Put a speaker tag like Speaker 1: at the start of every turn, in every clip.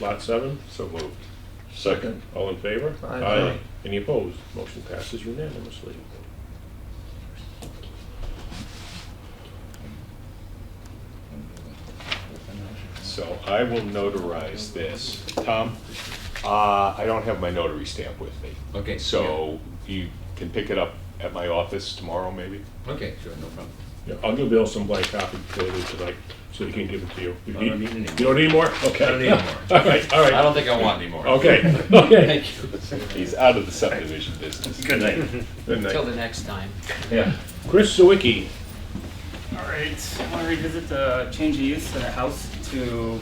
Speaker 1: Lot seven?
Speaker 2: So moved.
Speaker 3: Second.
Speaker 1: All in favor?
Speaker 3: Aye.
Speaker 1: Any opposed? Motion passes unanimously.
Speaker 2: So I will notarize this. Tom, uh, I don't have my notary stamp with me.
Speaker 4: Okay.
Speaker 2: So you can pick it up at my office tomorrow, maybe?
Speaker 4: yeah. Okay, sure, no problem.
Speaker 1: Yeah, I'll give Bill some blank copy later tonight, so he can give it to you. You
Speaker 4: I don't need any
Speaker 1: You don't need more? Okay.
Speaker 4: I don't need any more.
Speaker 1: All right, all
Speaker 4: I
Speaker 1: right.
Speaker 4: don't think I want any more.
Speaker 1: Okay, okay.
Speaker 4: Thank you.
Speaker 2: He's out of the subdivision business.
Speaker 1: Good night. Good
Speaker 5: Till
Speaker 1: night.
Speaker 5: the next time.
Speaker 1: Yeah. Chris Sawicki,
Speaker 6: All right, I want to revisit the change of use in a house to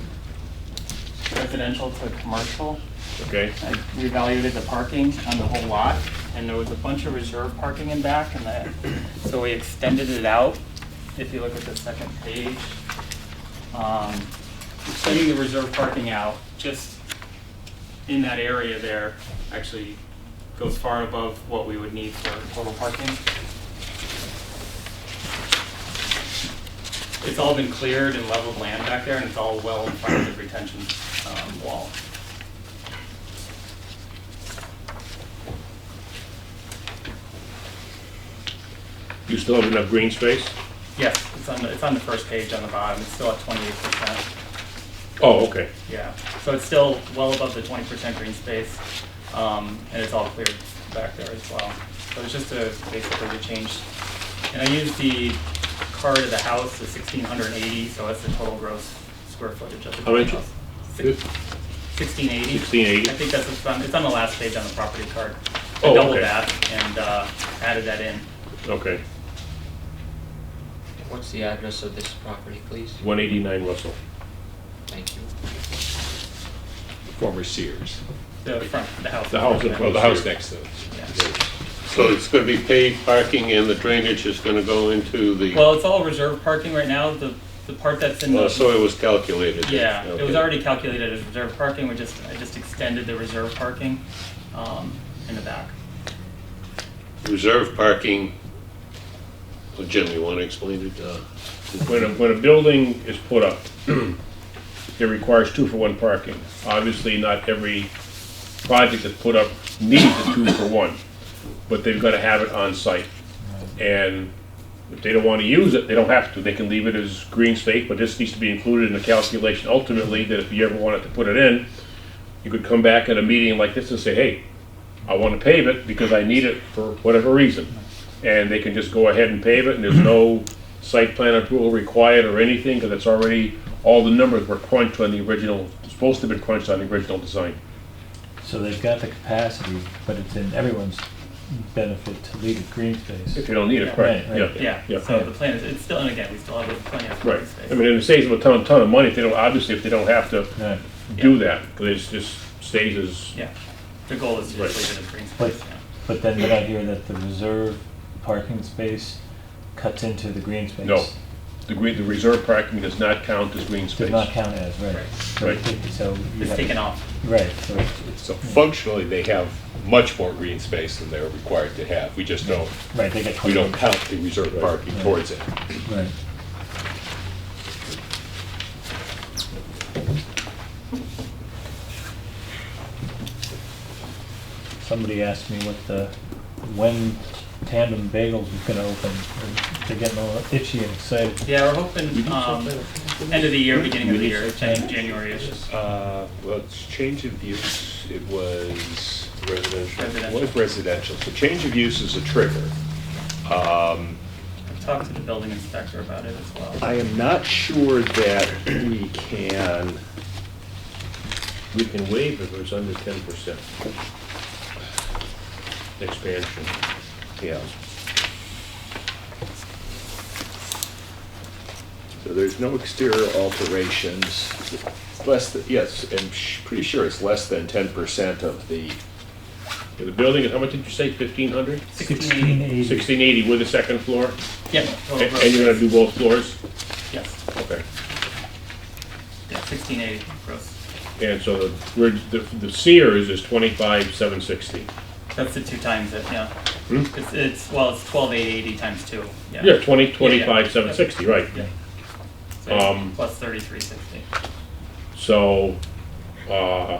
Speaker 6: residential to commercial.
Speaker 1: okay,
Speaker 6: I reevaluated the parking on the whole lot, and there was a bunch of reserve parking in back, and that, so we extended it out. If you look at the second page, um, extending the reserve parking out, just in that area there, actually goes far above what we would need for total parking. It's all been cleared and leveled land back there, and it's all well in front of the retention, um, wall.
Speaker 1: you still have enough green space?
Speaker 6: Yes, it's on the, it's on the first page on the bottom, it's still at twenty-eight percent,
Speaker 1: Oh, okay.
Speaker 6: yeah. So it's still well above the twenty percent green space, um, and it's all cleared back there as well. So it's just a, basically the change. And I used the card of the house, the sixteen hundred and eighty, so that's the total gross square footage of the
Speaker 1: How much?
Speaker 6: house. Sixteen eighty.
Speaker 1: 1680?
Speaker 6: I think that's what's on, it's on the last page on the property card.
Speaker 1: Oh,
Speaker 6: I doubled
Speaker 1: okay.
Speaker 6: that and, uh, added that in.
Speaker 1: Okay,
Speaker 5: What's the address of this property, please?
Speaker 1: one eighty-nine Russell.
Speaker 5: Thank you.
Speaker 2: Former Sears.
Speaker 6: The front, the house.
Speaker 1: The house in
Speaker 2: Well,
Speaker 1: front.
Speaker 2: the house next to it.
Speaker 6: Yeah.
Speaker 3: So it's gonna be paid parking and the drainage is gonna go into the,
Speaker 6: Well, it's all reserve parking right now, the, the part that's in
Speaker 3: uh, so
Speaker 6: the,
Speaker 3: it was calculated.
Speaker 6: yeah, it was
Speaker 3: Okay.
Speaker 6: already calculated as reserve parking, we just, I just extended the reserve parking, um, in the back.
Speaker 3: Reserve parking, Oh, Jim, you wanna explain it? Uh,
Speaker 1: When a, when a building is put up, it requires two-for-one parking. Obviously, not every project that's put up needs a two-for-one, but they've gotta have it on site. And if they don't wanna use it, they don't have to, they can leave it as green space, but this needs to be included in the calculation ultimately, that if you ever wanted to put it in, you could come back at a meeting like this and say, hey, I want to pave it because I need it for whatever reason. And they can just go ahead and pave it, and there's no site plan approval required or anything, because it's already, all the numbers were crunched on the original, supposed to have been crunched on the original design.
Speaker 7: So they've got the capacity, but it's in everyone's benefit to leave it green space.
Speaker 1: If you don't need it, correct?
Speaker 7: Right, right.
Speaker 6: Yeah,
Speaker 1: Yeah.
Speaker 6: so the plan is, it's still, and again, we still have the plenty of
Speaker 1: Right.
Speaker 6: parking space.
Speaker 1: I mean, and it saves them a ton, ton of money if they don't, obviously, if they don't have to
Speaker 7: Right.
Speaker 1: do that, because it just stays as,
Speaker 6: Yeah, the goal is to
Speaker 1: Right.
Speaker 6: just leave it as green
Speaker 7: But,
Speaker 6: space, yeah.
Speaker 7: but then did I hear that the reserve parking space cuts into the green space?
Speaker 1: no. The green, the reserve parking does not count as green space.
Speaker 7: Does not count as, right.
Speaker 6: Right.
Speaker 7: So
Speaker 1: Right.
Speaker 7: it- So. you
Speaker 6: It's
Speaker 7: have-
Speaker 6: taken off,
Speaker 7: Right, so it's-
Speaker 2: So functionally, they have much more green space than they're required to have. We just don't,
Speaker 7: right, they get.
Speaker 2: we don't count the reserve parking towards it.
Speaker 7: Right. Somebody asked me what the, when Tandem Bagels was gonna open, and they're getting all itchy and excited.
Speaker 6: yeah, we're hoping, um, end of the year, beginning of the year, Jan- January-ish,
Speaker 2: Uh, Well, it's change of use, it was residential. It
Speaker 6: Residential.
Speaker 2: was residential, so change of use is a trigger. Um,
Speaker 6: talk to the building inspector about it as well.
Speaker 2: I am not sure that we can,
Speaker 1: We can waive if it's under ten percent. Expansion.
Speaker 2: yeah. So there's no exterior alterations, less, than yes, I'm sh- pretty sure it's less than 10% of the
Speaker 1: The building, is how much did you say, fifteen hundred?
Speaker 7: Sixteen eighty.
Speaker 1: Sixteen eighty with the second floor,
Speaker 6: Yeah,
Speaker 1: A-
Speaker 6: total
Speaker 1: and,
Speaker 6: gross
Speaker 1: you're gonna do both floors?
Speaker 6: space. Yes,
Speaker 1: Okay.
Speaker 6: yeah, sixteen eighty gross.
Speaker 1: And so the, we're, the, the Sears is twenty-five, seven sixty.
Speaker 6: That's the two times it, yeah. It's, it's, well, it's twelve eight eighty times two, yeah.
Speaker 1: Hmm? Yeah, twenty, twenty-five, seven sixty, right.
Speaker 6: Yeah. So
Speaker 1: Um,
Speaker 6: plus thirty-three sixty.
Speaker 1: So uh,